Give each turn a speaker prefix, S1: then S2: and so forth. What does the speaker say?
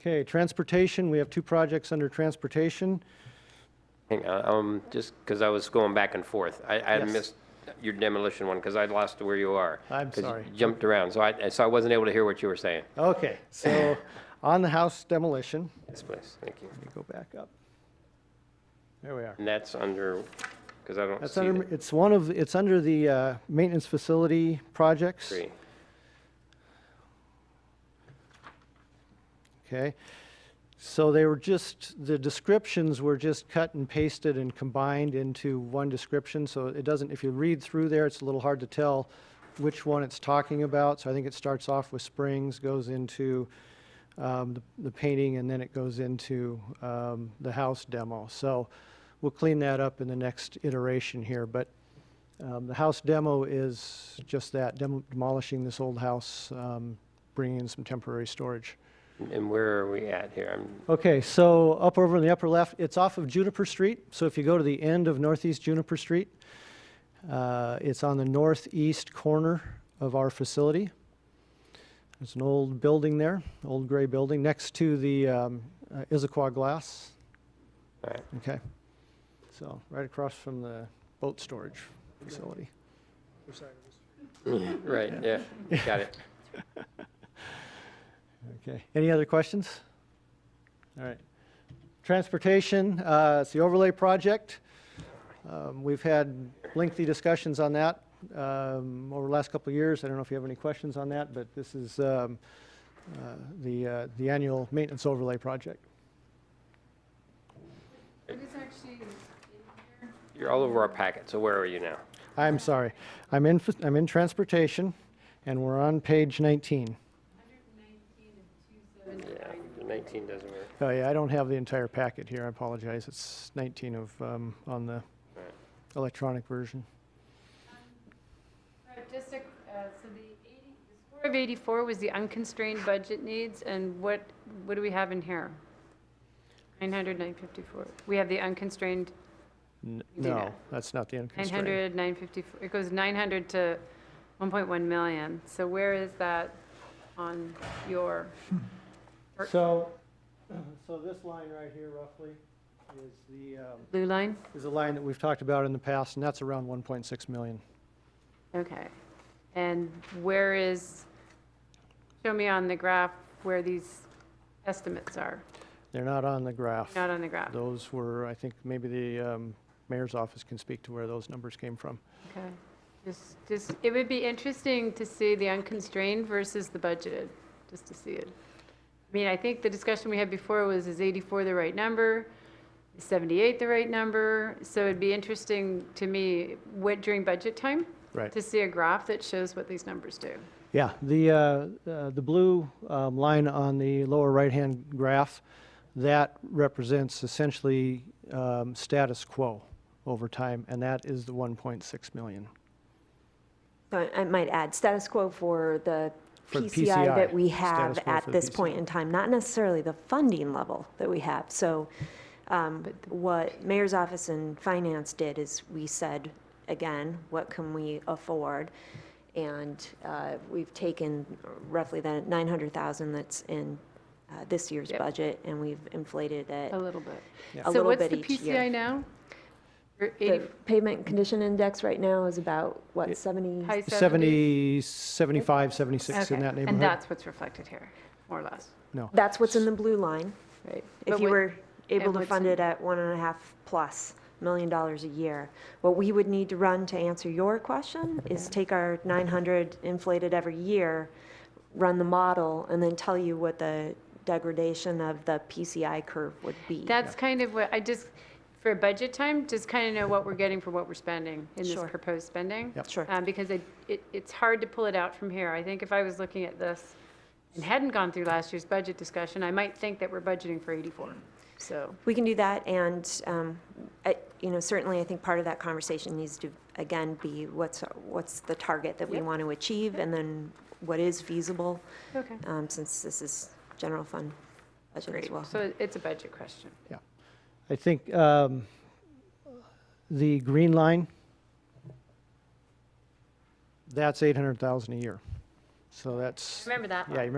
S1: Okay, transportation, we have two projects under transportation.
S2: Hang on, um, just because I was going back and forth. I, I had
S1: Yes.
S2: missed your demolition one because I lost where you are.
S1: I'm
S2: 'cause you
S1: sorry.
S2: Jumped around, so I, so I wasn't able to hear what you were saying.
S1: Okay, so on the house demolition,
S2: Yes, please, thank you.
S1: let me go back up. There we are.
S2: And that's under, because I don't
S1: That's
S2: see
S1: under,
S2: the
S1: it's one of, it's under the uh, maintenance facility projects.
S2: tree.
S1: Okay. So they were just, the descriptions were just cut and pasted and combined into one description. So it doesn't, if you read through there, it's a little hard to tell which one it's talking about. So I think it starts off with Springs, goes into um, the- the painting, and then it goes into um, the house demo. So we'll clean that up in the next iteration here. But um, the house demo is just that, demo- demolishing this old house, um, bringing in some temporary storage.
S2: And where are we at here? I'm,
S1: Okay, so up over in the upper left, it's off of Juniper Street. So if you go to the end of Northeast Juniper Street, uh, it's on the northeast corner of our facility. There's an old building there, old gray building, next to the um, uh, Issaquah Glass.
S2: all right.
S1: Okay. So right across from the boat storage facility.
S2: Right, yeah, got it.
S1: Okay, any other questions? All right. Transportation, uh, it's the overlay project. Um, We've had lengthy discussions on that um, over the last couple of years. I don't know if you have any questions on that, but this is um, uh, the, uh, the annual maintenance overlay project.
S3: It is actually in here.
S2: You're all over our packet, so where are you now?
S1: I'm sorry, I'm in, I'm in transportation, and we're on page 19.
S3: 119 and
S2: Yeah,
S3: 279.
S2: 19 doesn't work.
S1: Oh, yeah, I don't have the entire packet here, I apologize. It's 19 of, um, on the
S2: Right.
S1: electronic version.
S3: Right, just a, uh, so the 80, the score of 84 was the unconstrained budget needs, and what, what do we have in here? 900, 954. We have the unconstrained,
S1: N-
S3: You do
S1: No,
S3: not.
S1: that's not the unconstrained.
S3: 900, 954, it goes 900 to 1.1 million. So where is that on your, or-
S1: So, so this line right here roughly is the, um,
S3: blue line?
S1: is a line that we've talked about in the past, and that's around 1.6 million.
S3: Okay. And where is, show me on the graph where these estimates are,
S1: They're not on the graph.
S3: not on the graph.
S1: Those were, I think, maybe the um, mayor's office can speak to where those numbers came from.
S3: Okay. Just, just, it would be interesting to see the unconstrained versus the budgeted, just to see it. I mean, I think the discussion we had before was, is 84 the right number? Is 78 the right number? So it'd be interesting to me, what, during budget time?
S1: Right.
S3: To see a graph that shows what these numbers do.
S1: Yeah, the, uh, uh, the blue um, line on the lower right-hand graph, that represents essentially um, status quo over time, and that is the 1.6 million.
S4: So I I might add, status quo for the
S1: For the
S4: PCI that
S1: PCI,
S4: we
S1: status
S4: have
S1: quo for
S4: at
S1: the
S4: this
S1: PCI.
S4: point in time, not necessarily the funding level that we have. So um, what mayor's office and finance did is we said, again, what can we afford? And uh, we've taken roughly the 900,000 that's in uh, this year's
S3: Yep.
S4: budget, and we've inflated it
S3: A little bit.
S4: a
S3: So
S4: little
S3: what's
S4: bit
S3: the
S4: each year.
S3: PCI now? Or
S4: The
S3: 80
S4: pavement condition index right now is about, what, 70?
S3: high 70s?
S1: 70, 75, 76 in
S3: Okay,
S1: that neighborhood.
S3: And that's what's reflected here, more or less,
S1: No.
S4: That's what's in the blue line.
S3: right?
S4: If
S3: But
S4: you
S3: what-
S4: were able
S3: and
S4: to
S3: what's
S4: fund
S3: in-
S4: it at one and a half plus million dollars a year, what we would need to run to answer your question is take our 900 inflated every year, run the model, and then tell you what the degradation of the PCI curve would be.
S3: That's kind of what, I just, for budget time, just kind of know what we're getting for what we're spending in this
S4: Sure.
S3: proposed spending.
S1: Yep.
S4: Sure.
S3: Um, Because it, it, it's hard to pull it out from here. I think if I was looking at this and hadn't gone through last year's budget discussion, I might think that we're budgeting for 84, so.
S4: We can do that, and, um, I- you know, certainly, I think part of that conversation needs to, again, be what's, what's the target that we
S3: Yep.
S4: want to achieve, and then what is feasible,
S3: Okay.
S4: um, since this is general fund budget as well.
S3: So it's a budget question.
S1: I think um, the green line, that's 800,000 a year. So that's,
S3: Remember that
S1: yeah, you